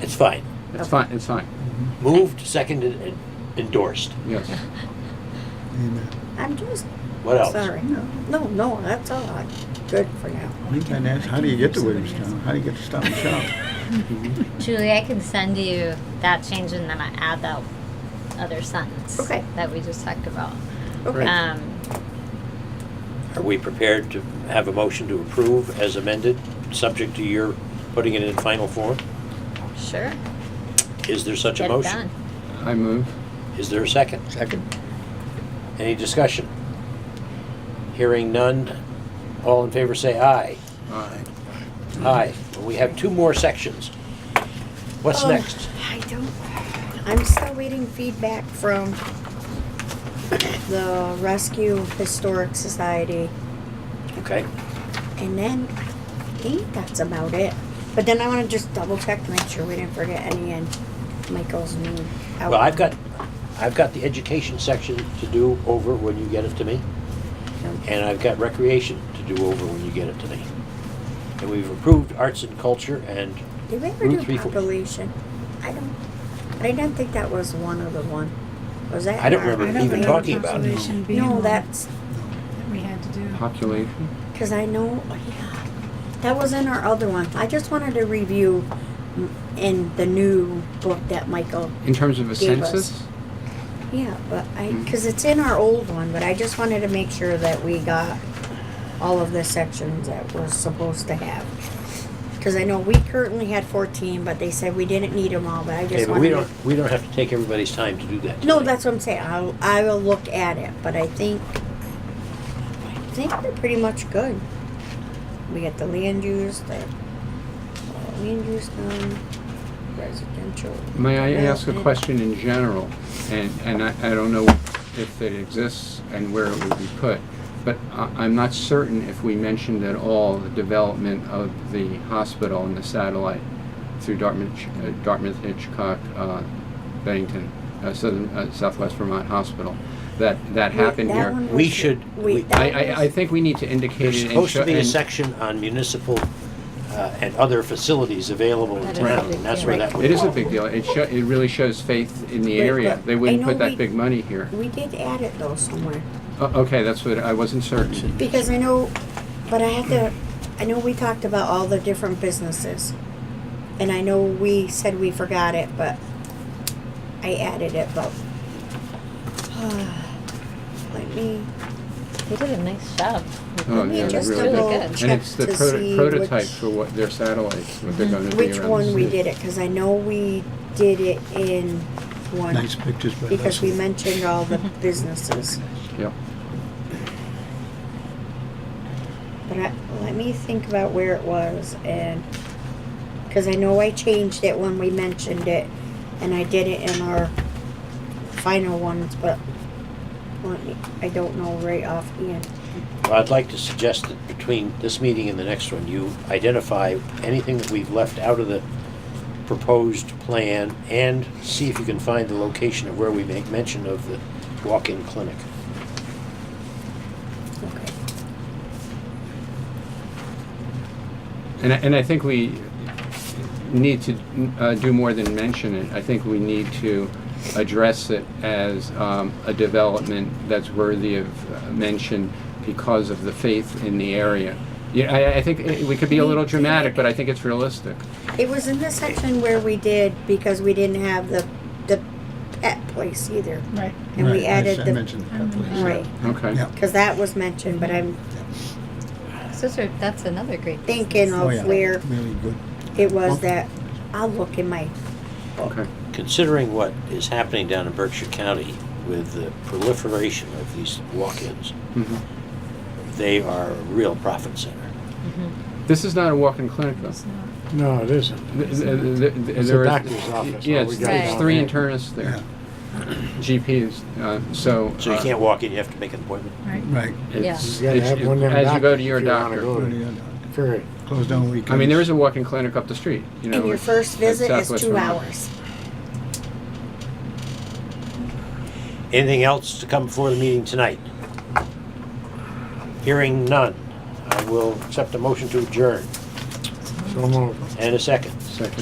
It's fine. It's fine, it's fine, Moved, seconded, and endorsed. yes. Amen. I'm just, What else? sorry, no, no, no, that's all right. Good for now. Meantime, ask, how do you get to Williamstown? How do you get to Stop and Shop? Julie, I can send you that change and then I add that other sentence Okay. that we just talked about. Okay, Um, Are we prepared to have a motion to approve as amended, subject to your putting it in final form? Um, sure. Is there such a Get it motion? done. I move. Is there a second? Second. Any discussion? Hearing none, all in favor say aye. Aye. Aye. We have two more sections. What's Um, next? I don't, I'm still waiting feedback from the Rescue Historic Society, Okay, and then I think that's about it. But then I wanna just double check to make sure we didn't forget any in Michael's new. well, I've got, I've got the education section to do over when you get it to me, and I've got recreation to do over when you get it to me. And we've approved arts and culture and Did we ever Route do three four- population? I don't, I didn't think that was one of the one. Was that? I don't in our- remember I don't even remember talking about it. conservation being No, one that that's, we had to do. Population, Because I know, oh, yeah, that was in our other one. I just wanted to review mm, in the new book that Michael, in terms of a Gave us. census? yeah, but I, Mm. because it's in our old one, but I just wanted to make sure that we got all of the sections that we're supposed to have. Because I know we currently had fourteen, but they said we didn't need them all, but I Okay, just but we wanted to. don't, we don't have to take everybody's time to do that. No, tonight. that's what I'm saying. I'll, I will look at it, but I think, I think they're pretty much good. We got the land use, the uh, land use done, residential. May I ask a development. question in general? And, and I, I don't know if it exists and where it would be put, but I, I'm not certain if we mentioned at all the development of the hospital and the satellite through Dartmouth, uh, Dartmouth Hitchcock, uh, Bennington, uh, Southern, uh, Southwest Vermont Hospital, that, that Wait, happened that here. one We was- should- wait, we- that I, I, I was- think we need to indicate There's it and supposed to show- be a and- section on municipal uh, and other facilities available in That is a town, big and that's where deal. that would. It is a fall. big deal. It sho- it really shows faith in the Right, area. but They I wouldn't know put we- that big money here. We did add it though somewhere, O- Okay, that's what, I wasn't certain. because I know, but I had to, I know we talked about all the different businesses. And I know we said we forgot it, but I added it, but. Let me. They did a nice job. Oh, me yeah, they just really double did. check And it's the to proto- see prototype which- Mm-hmm. for what their satellites, what they're gonna be around. Which the one we city. did it, cause I know we did it in one, Nice pictures by because we Leslie. mentioned all the businesses. Yeah. But I, let me think about where it was and, cause I know I changed it when we mentioned it, and I did it in our final ones, but let me, I don't know right offhand. Well, I'd like to suggest that between this meeting and the next one, you identify anything that we've left out of the proposed plan and see if you can find the location of where we make mention of the walk-in clinic. Okay. And I, and I think we need to uh, do more than mention it. I think we need to address it as um, a development that's worthy of uh, mention because of the faith in the area. Yeah, I, I think it- we could be a little dramatic, but I think it's realistic. It was in the section where we did, because we didn't have the, the pet place either. Right. And Right, we I added s- I the, Mm-hmm. mentioned that place. yeah. right, Okay. Yeah. because that was mentioned, but I'm Those are, that's another great. thinking Oh, yeah. of where Really good. it was that, I'll look in my, Okay. Considering what is happening down in Berkshire County with the proliferation of these walk-ins, Mhm. they are a real profit center. Mm-hmm. This is not a walk-in clinic, though. It's not- No, it isn't. Th- th- th- th- It's there a is- doctor's office. Yeah, all we it's, got Right. it's down three there. internists Yeah, there, GPs. Uh, so. So you uh, can't walk in, you have to make an appointment. Right. right. It's, You gotta it's- have one of them as you go doctors to your if you wanna doctor. go to- Period. uh, Closed down weekends. I mean, there is a walk-in clinic up the street. You know, and your at- first at visit is Southwest two Vermont. hours. Anything else to come before the meeting tonight? Hearing none, I will accept a motion to adjourn So moved. and a second. Second.